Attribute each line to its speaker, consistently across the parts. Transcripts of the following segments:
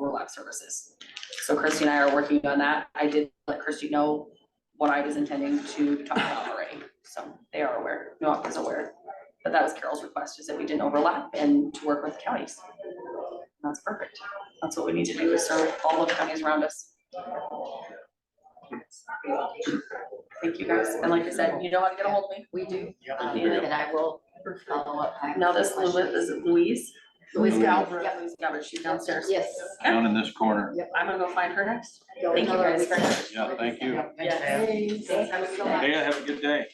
Speaker 1: lab services. So Christy and I are working on that. I did let Christy know what I was intending to talk about already. So they are aware, North is aware. But that was Carol's request, is that we didn't overlap and to work with counties. That's perfect. That's what we need to do, is serve all of the counties around us. Thank you guys. And like I said, you know how to get a hold of me.
Speaker 2: We do,
Speaker 3: Yep.
Speaker 2: um, and I will follow up.
Speaker 1: Now this Louis, is it Louise?
Speaker 2: Louise
Speaker 1: Mm-hmm.
Speaker 2: Galbraith.
Speaker 1: Yeah, Louise Galbraith, she's downstairs.
Speaker 2: Yes.
Speaker 4: down in this corner.
Speaker 1: I'm gonna go find her next. Thank you guys very much.
Speaker 4: Yeah, thank you.
Speaker 3: Yep, thanks,
Speaker 1: Yeah.
Speaker 2: Thanks,
Speaker 3: Dad.
Speaker 2: have a good night.
Speaker 4: Hey, have a good day.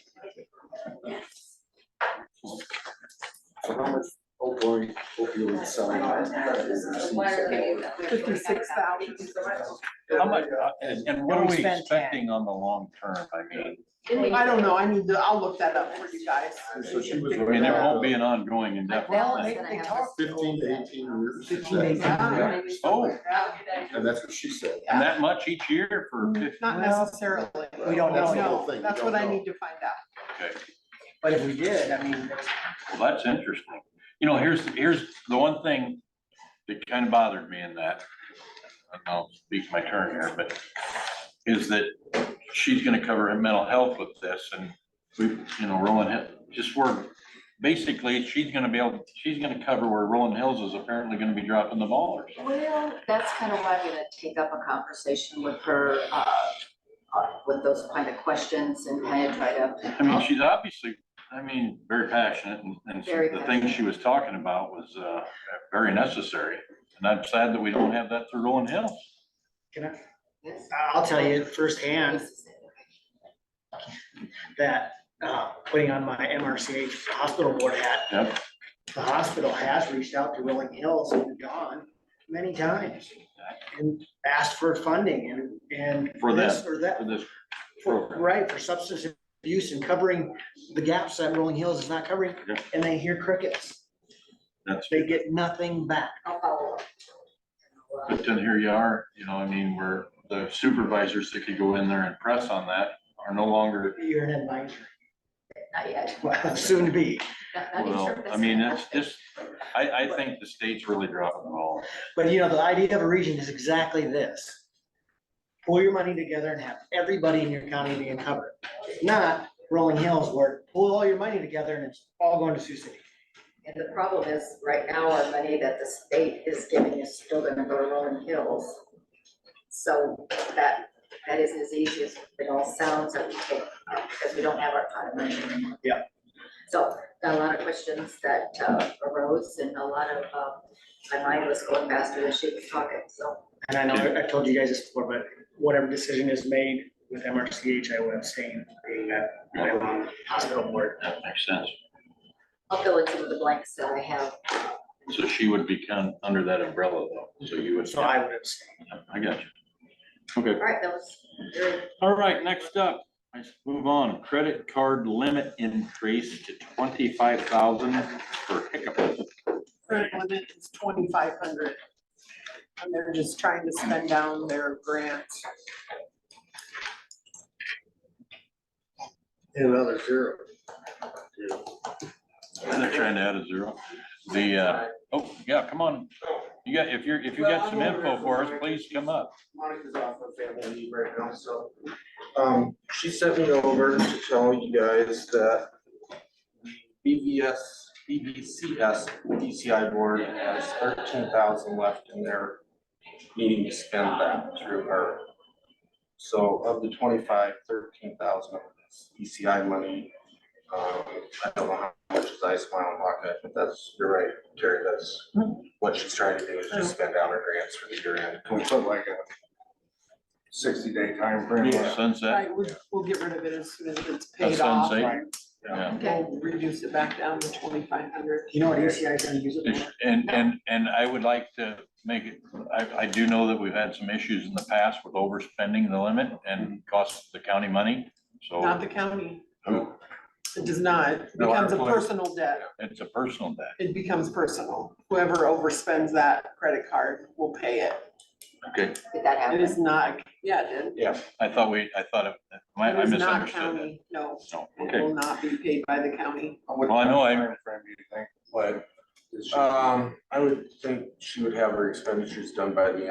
Speaker 5: So how much opioid, opioid selling?
Speaker 6: Fifty-six thousand.
Speaker 4: How much, uh, and, and what are
Speaker 6: We
Speaker 4: we
Speaker 6: spent ten.
Speaker 4: expecting on the long term? I mean,
Speaker 6: I don't know, I need to, I'll look that up for you guys.
Speaker 5: So she was.
Speaker 4: I mean, there won't be an ongoing indefinite
Speaker 2: Well,
Speaker 4: thing.
Speaker 2: they- they talked-
Speaker 5: Fifteen to eighteen years.
Speaker 6: 15 to 18.
Speaker 5: Yeah,
Speaker 4: Oh,
Speaker 5: And that's what she said.
Speaker 4: and that much each year for fifty,
Speaker 6: Not necessarily.
Speaker 5: We don't know. That's the whole
Speaker 6: No,
Speaker 5: thing, we
Speaker 6: that's
Speaker 5: don't
Speaker 6: what I
Speaker 5: know.
Speaker 6: need to find out.
Speaker 4: okay,
Speaker 3: But if we did, I mean,
Speaker 4: well, that's interesting. You know, here's, here's the one thing that kind of bothered me in that. and I'll speak my turn here, but is that she's gonna cover her mental health with this and we, you know, Roland, Hill- just we're, basically, she's gonna be able, she's gonna cover where Rolling Hills is apparently gonna be dropping the ball or something.
Speaker 2: Well, that's kind of why I'm gonna take up a conversation with her, uh, uh, with those kind of questions and kind of try to.
Speaker 4: I mean, she's obviously, I mean, very passionate and, and
Speaker 2: Very
Speaker 4: the things she was talking about was, uh, very necessary. And I'm sad that we don't have that through Rolling Hills.
Speaker 3: can I-
Speaker 2: Yes.
Speaker 3: I'll tell you firsthand that, uh, putting on my MRCH hospital board hat.
Speaker 4: Yep.
Speaker 3: The hospital has reached out to Rolling Hills and John many times and asked for funding and, and.
Speaker 4: For
Speaker 3: this Or that,
Speaker 4: For this
Speaker 3: for,
Speaker 4: program.
Speaker 3: right, for substance abuse and covering the gaps that Rolling Hills is not covering.
Speaker 4: Yeah.
Speaker 3: And they hear crickets.
Speaker 4: That's-
Speaker 3: They get nothing back.
Speaker 2: I'll follow up.
Speaker 4: But then here you are, you know, I mean, where the supervisors that could go in there and press on that are no longer,
Speaker 3: You're an advisor.
Speaker 2: Not yet.
Speaker 3: Well, soon to be.
Speaker 2: Not- not even
Speaker 4: well,
Speaker 2: sure if
Speaker 4: I mean,
Speaker 2: gonna
Speaker 4: that's just, I, I think the state's really dropping the ball.
Speaker 3: But you know, the idea of a region is exactly this. Pull your money together and have everybody in your county being covered, not rolling hills where pull all your money together and it's all going to Sioux City.
Speaker 2: And the problem is, right now, our money that the state is giving is still gonna go to Rolling Hills. So that, that isn't as easy as it all sounds, that we take, uh, because we don't have our pot of money anymore.
Speaker 3: Yeah.
Speaker 2: So, got a lot of questions that uh, arose, and a lot of, uh, my mind was going faster than she was talking, so.
Speaker 3: And I know, I- I've told you guys this before, but whatever decision is made with MRCH, I will abstain, being that I'm on hospital board.
Speaker 4: That makes sense.
Speaker 2: I'll fill in some of the blanks that I have.
Speaker 4: So she would be kind of under that umbrella though, so you would.
Speaker 3: So I would abstain.
Speaker 4: I got you. Okay.
Speaker 2: All right, that was very
Speaker 4: All right, next up, let's move on. Credit card limit increase to twenty-five thousand for hiccup.
Speaker 6: Current limit is twenty-five hundred. And they're just trying to spend down their grants.
Speaker 5: Another zero.
Speaker 4: They're trying to add a zero. The, uh, oh, yeah, come on. You got, if you're, if you got some info for us, please come up.
Speaker 7: Monica's off of family leave right now, so. Um, she sent me over to tell you guys that the BVS, BVCS, DCI board has thirteen thousand left and they're needing to spend that through her. So of the 25, 13,000 of this ECI money, um, I don't know how much is Ice Mile and Waka, but that's, you're right, Terry, that's what she's trying to do is just spend out her grants for the year end. Can we put like a sixty day time frame?
Speaker 6: Right,
Speaker 4: Sunset,
Speaker 6: we'll, we'll get rid of it as soon as it's
Speaker 4: That's
Speaker 6: paid off.
Speaker 4: sensate.
Speaker 6: Right.
Speaker 4: yeah.
Speaker 6: We'll reduce it back down to twenty-five hundred.
Speaker 3: You know what ACI is gonna use it for?
Speaker 4: And, and, and I would like to make it, I, I do know that we've had some issues in the past with overspending the limit and cost the county money.
Speaker 6: Not
Speaker 4: So
Speaker 6: the county.
Speaker 4: Oh.
Speaker 6: It does not. It
Speaker 7: No, our
Speaker 6: becomes a
Speaker 7: plan.
Speaker 6: personal debt.
Speaker 4: it's a personal debt.
Speaker 6: It becomes personal. Whoever overspends that credit card will pay it.
Speaker 4: Okay.
Speaker 2: did that
Speaker 6: It
Speaker 2: happen?
Speaker 6: is not, yeah, it did.
Speaker 4: I thought we, I thought, it- I I
Speaker 6: It is not
Speaker 4: misunderstood that.
Speaker 6: county. No,
Speaker 4: No,
Speaker 6: it
Speaker 4: okay.
Speaker 6: will not be paid by the county.
Speaker 4: Well, I know I-
Speaker 7: Timeframe, do you think? What? Um, I would think she would have her expenditures done by the end